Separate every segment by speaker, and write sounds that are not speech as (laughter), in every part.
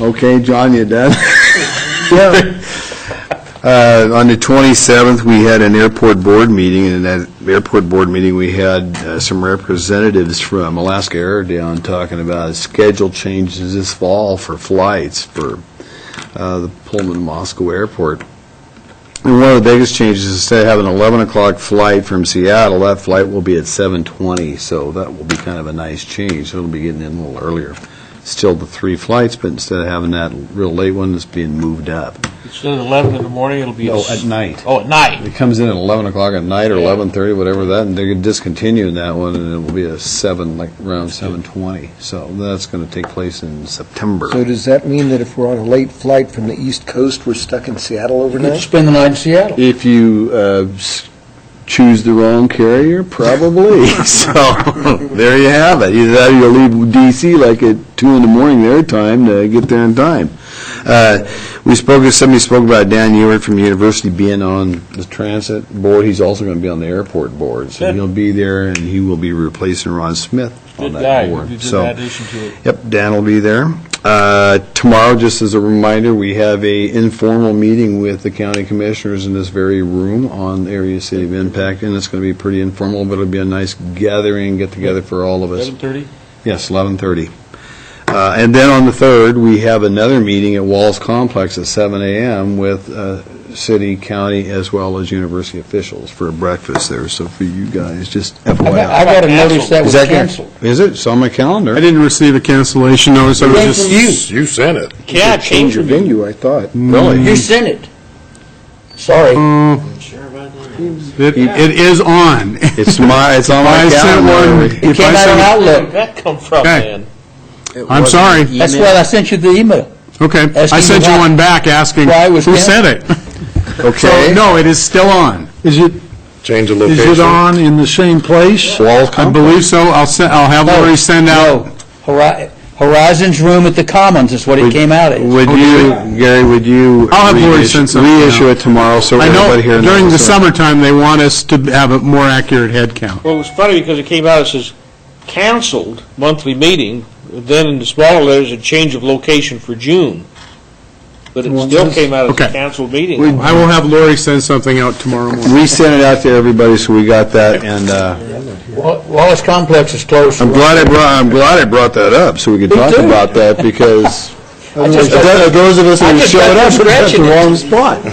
Speaker 1: Okay, John, you done?
Speaker 2: Yeah.
Speaker 1: (laughs) Uh, On the 27th, we had an airport board meeting, and in that airport board meeting, we had uh, some representatives from Alaska Air down talking about schedule changes this fall for flights for uh, the Pullman Moscow Airport. And one of the biggest changes, is instead of having an 11 o'clock flight from Seattle, that flight will be at 7:20, so that will be kind of a nice change. It'll be getting in a little earlier. Still the three flights, but instead of having that real late one, it's being moved up.
Speaker 3: Instead of 11 in the morning, it'll be...
Speaker 1: No, at night.
Speaker 3: Oh, at night.
Speaker 1: It comes in at 11 o'clock at night or 11:30, whatever that, and they're discontinuing that one, and it will be a 7, like around 7:20. So that's going to take place in September.
Speaker 2: So does that mean that if we're on a late flight from the East Coast, we're stuck in Seattle overnight?
Speaker 3: Spend the night in Seattle.
Speaker 1: If you uh, s- choose the wrong carrier,
Speaker 3: (laughs)
Speaker 1: probably. So, there you have it. Either that or you'll leave DC like at two in the morning their time to get there in time. Uh, We spoke, somebody spoke about Dan Ewert from the university being on the transit board. He's also going to be on the airport board. So
Speaker 3: Good.
Speaker 1: he'll be there and he will be replacing Ron Smith on
Speaker 3: Good guy,
Speaker 1: that
Speaker 3: who
Speaker 1: board.
Speaker 3: did
Speaker 1: So-
Speaker 3: that addition to it.
Speaker 1: Yep, Dan will be there. Uh, Tomorrow, just as a reminder, we have a informal meeting with the county commissioners in this very room on area city of impact, and it's going to be pretty informal, but it'll be a nice gathering, get-together for all of us.
Speaker 3: 11:30?
Speaker 1: Yes, 11:30. Uh, And then on the 3rd, we have another meeting at Walls Complex at 7 a.m. with uh, city, county, as well as university officials for a breakfast there, so for you guys, just
Speaker 4: I
Speaker 1: FYI.
Speaker 4: got a notice that
Speaker 1: Is
Speaker 4: was
Speaker 1: that good?
Speaker 4: canceled.
Speaker 1: Is it? It's on my calendar.
Speaker 5: I didn't receive a cancellation notice, I was
Speaker 4: Thank
Speaker 5: just...
Speaker 4: you.
Speaker 5: sent it.
Speaker 3: Yeah, change
Speaker 2: Your venue, I thought.
Speaker 1: Mm.
Speaker 4: You sent it. Sorry.
Speaker 5: It it is on. If
Speaker 1: It's my, it's on my
Speaker 5: (laughs) I sent
Speaker 1: calendar.
Speaker 5: one,
Speaker 4: It
Speaker 5: if
Speaker 4: came out on
Speaker 5: I
Speaker 3: Where'd
Speaker 4: Outlook.
Speaker 3: that come from,
Speaker 5: Okay.
Speaker 3: man?
Speaker 5: sent, I'm sorry,
Speaker 4: That's why I sent you the email.
Speaker 5: okay,
Speaker 4: Asking
Speaker 5: I sent you
Speaker 4: why-
Speaker 5: one back asking,
Speaker 4: why it was
Speaker 5: who
Speaker 4: canceled.
Speaker 5: sent it? So,
Speaker 1: Okay.
Speaker 5: no, it is still on. Is it,
Speaker 6: Change the
Speaker 5: is
Speaker 6: location.
Speaker 5: in the same place?
Speaker 1: Wall
Speaker 5: I believe so, I'll send, I'll have
Speaker 4: No,
Speaker 5: Lori send out,
Speaker 4: Hori- Horizon's Room at the Commons is what it came out as.
Speaker 1: Would you, Gary, would you?
Speaker 5: I'll have Lori
Speaker 1: reissue-
Speaker 5: send something
Speaker 1: Reissue
Speaker 5: out.
Speaker 1: it tomorrow, so
Speaker 5: I know,
Speaker 1: everybody here knows.
Speaker 5: during the summertime, they want us to have a more accurate head count.
Speaker 3: Well, it was funny because it came out, it says canceled monthly meeting, then in the smaller letters, a change of location for June. But it still came out as a
Speaker 5: Okay.
Speaker 3: canceled meeting.
Speaker 5: I will have Lori send something out tomorrow morning.
Speaker 1: We sent it out to everybody, so we got that, and uh,
Speaker 4: Wa- Wallace Complex is closed.
Speaker 1: I'm glad I brought, I'm glad I brought that up, so we could talk about that, because
Speaker 4: (laughs) just-
Speaker 1: Th- those of us
Speaker 4: I
Speaker 1: who
Speaker 4: just
Speaker 1: showed
Speaker 4: got
Speaker 1: up,
Speaker 4: through
Speaker 1: were at the
Speaker 4: scratching it.
Speaker 1: wrong spot.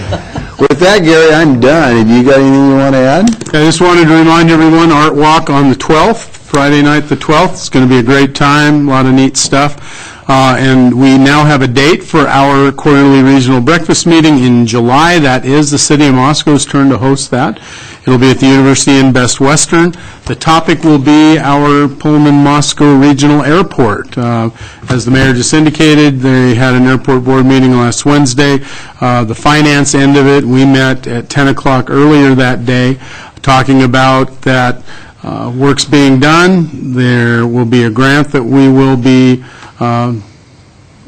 Speaker 1: With that, Gary, I'm done. Have you got anything you want to add?
Speaker 5: I just wanted to remind everyone, Art Walk on the 12th, Friday night, the 12th. It's going to be a great time, a lot of neat stuff. Uh, And we now have a date for our quarterly regional breakfast meeting in July. That is the city of Moscow's turn to host that. It'll be at the University in Best Western. The topic will be our Pullman-Moscow Regional Airport. Uh, As the mayor just indicated, they had an airport board meeting last Wednesday. Uh, The finance end of it, we met at 10 o'clock earlier that day talking about that uh, work's being done. There will be a grant that we will be um,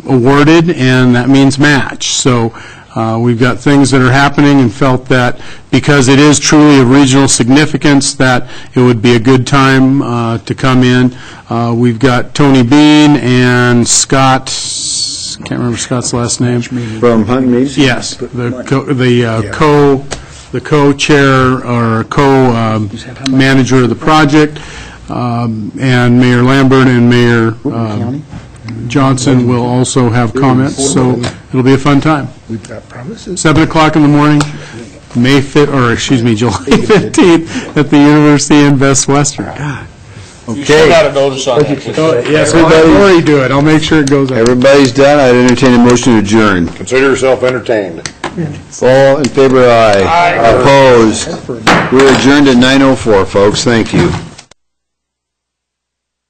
Speaker 5: awarded, and that means match. So uh, we've got things that are happening and felt that because it is truly of regional significance, that it would be a good time uh, to come in. Uh, We've got Tony Bean and Scott, can't remember Scott's last name.
Speaker 1: From Hunt Meads?
Speaker 5: Yes, the co, the uh, co, the co-chair or co-manager of the project, um, and Mayor Lambert and Mayor um, Johnson will also have comments, so it'll be a fun time.
Speaker 2: We've got promises.
Speaker 5: 7 o'clock in the morning, May 5th, or excuse me, (laughs) July 15th, at the University in Best Western.
Speaker 3: You still got a notice on that.
Speaker 5: Yes, I'll have Lori do it, I'll make sure it goes out.
Speaker 1: Everybody's done. I'd entertain a motion to adjourn.
Speaker 6: Consider yourself entertained.
Speaker 1: All in favor, aye. Opposed. We're adjourned at 9:04, folks. Thank you.